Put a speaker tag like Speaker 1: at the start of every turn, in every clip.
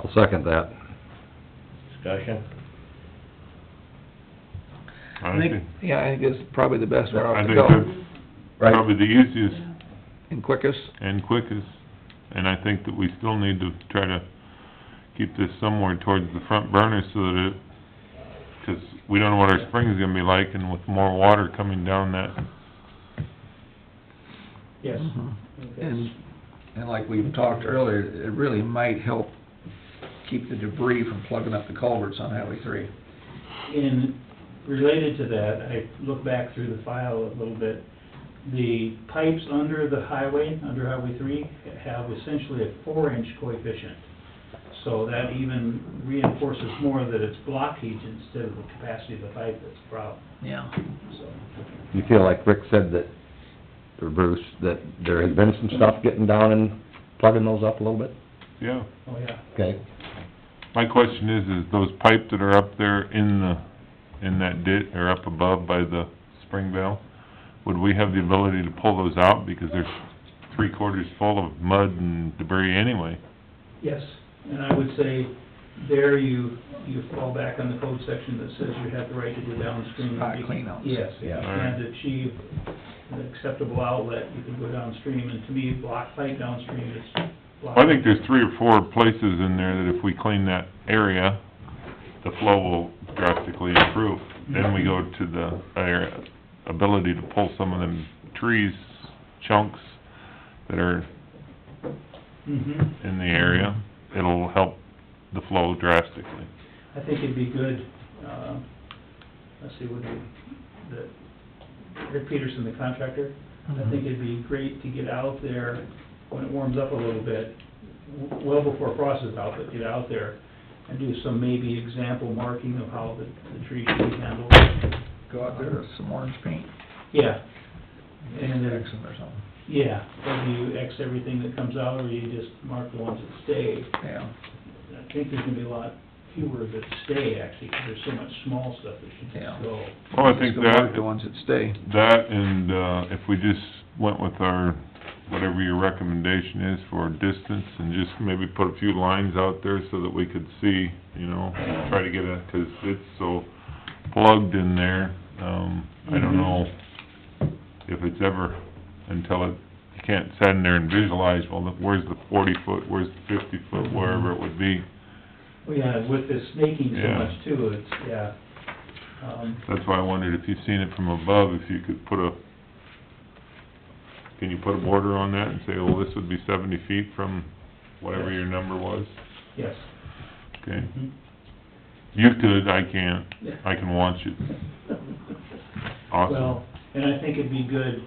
Speaker 1: I'll second that.
Speaker 2: Discussion?
Speaker 3: I think,
Speaker 4: Yeah, I think it's probably the best route
Speaker 3: I
Speaker 4: to
Speaker 3: think
Speaker 4: go,
Speaker 3: that's probably the easiest
Speaker 4: and quickest.
Speaker 3: and quickest, and I think that we still need to try to keep this somewhere towards the front burner so that it, 'cause we don't know what our spring's gonna be like, and with more water coming down that,
Speaker 2: Yes.
Speaker 4: Mhm. And, and like we've talked earlier, it really might help keep the debris from plugging up the culverts on Highway three.
Speaker 2: And related to that, I look back through the file a little bit. The pipes under the highway, under Highway three, have essentially a four-inch coefficient. So that even reinforces more that it's blockage instead of the capacity of the pipe that's the problem,
Speaker 4: Yeah.
Speaker 2: so.
Speaker 1: You feel like Rick said that, or Bruce, that there has been some stuff getting down and plugging those up a little bit?
Speaker 3: yeah.
Speaker 2: Oh, yeah.
Speaker 1: Okay.
Speaker 3: My question is, is those pipe that are up there in the, in that ditch, or up above by the spring valve, would we have the ability to pull those out, because they're three quarters full of mud and debris anyway?
Speaker 2: Yes, and I would say there you, you fall back on the code section that says you have the right to go downstream.
Speaker 4: Spot cleanouts.
Speaker 2: Yes, if you
Speaker 1: Yeah.
Speaker 2: can't achieve an acceptable outlet, you can go downstream, and to me, block pipe downstream is block.
Speaker 3: I think there's three or four places in there that if we clean that area, the flow will drastically improve. Then we go to the, our ability to pull some of them trees, chunks that are
Speaker 2: Mhm.
Speaker 3: in the area. It'll help the flow drastically.
Speaker 2: I think it'd be good, uh, let's see, would be, the, Rick Peterson, the contractor, I think it'd be great to get out there when it warms up a little bit, w- well before frost is out, but get out there and do some maybe example marking of how the, the tree should be handled.
Speaker 4: Go out there with some orange paint,
Speaker 2: Yeah, And-
Speaker 4: and Exum or something,
Speaker 2: yeah, whether you X everything that comes out or you just mark the ones that stay.
Speaker 4: yeah,
Speaker 2: I think there's gonna be a lot fewer that stay actually, because there's so much small stuff that should
Speaker 4: Yeah.
Speaker 2: just go.
Speaker 3: Well, I think
Speaker 4: Just go mark
Speaker 3: that,
Speaker 4: the ones that stay.
Speaker 3: that and, uh, if we just went with our, whatever your recommendation is for distance and just maybe put a few lines out there so that we could see, you know, try to get a, 'cause it's so plugged in there, um, I don't know if it's ever, until it, you can't sit in there and visualize, well, look, where's the forty foot, where's the fifty foot, wherever it would be.
Speaker 2: Well, yeah, with the snaking so
Speaker 3: Yeah.
Speaker 2: much too, it's, yeah. Um,
Speaker 3: That's why I wondered if you've seen it from above, if you could put a, can you put a border on that and say, well, this would be seventy feet from whatever your number was?
Speaker 2: yes. Mm-hmm.
Speaker 3: Okay, you could, I can't,
Speaker 2: Yeah.
Speaker 3: I can watch it, awesome.
Speaker 2: Well, and I think it'd be good,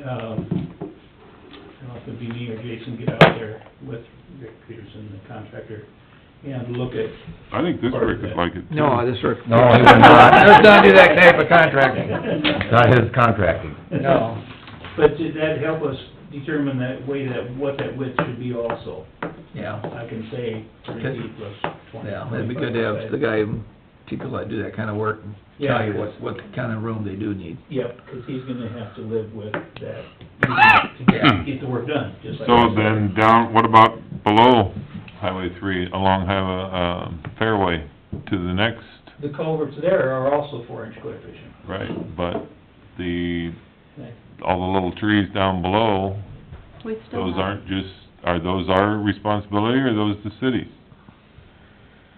Speaker 2: um, I don't know if it'd be me or Jason, get out there with Rick Peterson, the contractor, and look at.
Speaker 3: I think this
Speaker 2: part of
Speaker 3: Rick would
Speaker 2: that.
Speaker 3: like it too.
Speaker 4: No, I just.
Speaker 1: No, he would not.
Speaker 4: Let's not do that type of contracting,
Speaker 1: Not his contracting.
Speaker 4: no.
Speaker 2: But did that help us determine that way that, what that width should be also?
Speaker 4: Yeah,
Speaker 2: I can say thirty feet plus twenty.
Speaker 4: yeah, it'd be good to have the guy, people that do that kinda work, tell
Speaker 2: Yeah.
Speaker 4: you what, what kind of room they do need.
Speaker 2: Yep, 'cause he's gonna have to live with that, to get, get the work done, just like.
Speaker 3: So then down, what about below Highway three, along Highway, uh, Fairway to the next,
Speaker 2: The culverts there are also four inch coefficient.
Speaker 3: right, but the all the little trees down below,
Speaker 5: We still
Speaker 3: those
Speaker 5: have-
Speaker 3: aren't just, are those our responsibility or those the city's?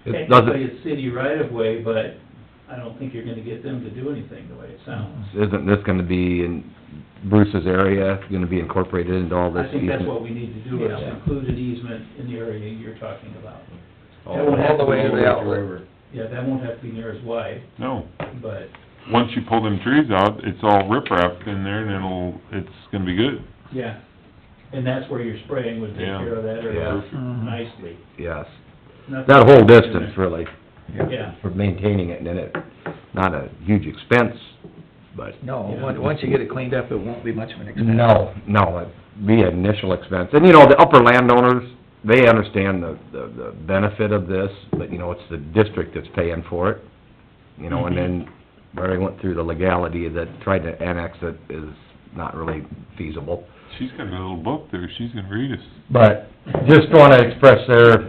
Speaker 1: It
Speaker 2: Technically,
Speaker 1: doesn't,
Speaker 2: it's city right of way, but I don't think you're gonna get them to do anything the way it sounds.
Speaker 1: isn't this gonna be in Bruce's area, gonna be incorporated into all this
Speaker 2: I think that's
Speaker 1: easement?
Speaker 2: what we need to do, is
Speaker 4: Yeah.
Speaker 2: include an easement in the area you're talking about.
Speaker 4: All all the way to the outlet.
Speaker 2: Yeah, that won't have to be near as wide,
Speaker 3: No.
Speaker 2: but,
Speaker 3: Once you pull them trees out, it's all riprap in there and it'll, it's gonna be good.
Speaker 2: yeah. And that's where your spraying would take
Speaker 3: Yeah.
Speaker 2: care of that area
Speaker 3: Perfect.
Speaker 4: Mhm.
Speaker 2: nicely.
Speaker 1: Yes,
Speaker 2: Nothing-
Speaker 1: that whole distance really,
Speaker 2: Yeah,
Speaker 1: for maintaining it, and then it, not a huge expense, but
Speaker 4: No, on- once you get it cleaned up, it won't be much of an expense.
Speaker 1: No, no, it'd be an initial expense. And, you know, the upper landowners, they understand the, the, the benefit of this, but, you know, it's the district that's paying for it. You know, and then where I went through the legality that trying to annex it is not really feasible.
Speaker 3: She's got a little book there, she's gonna read us.
Speaker 1: But just wanna express their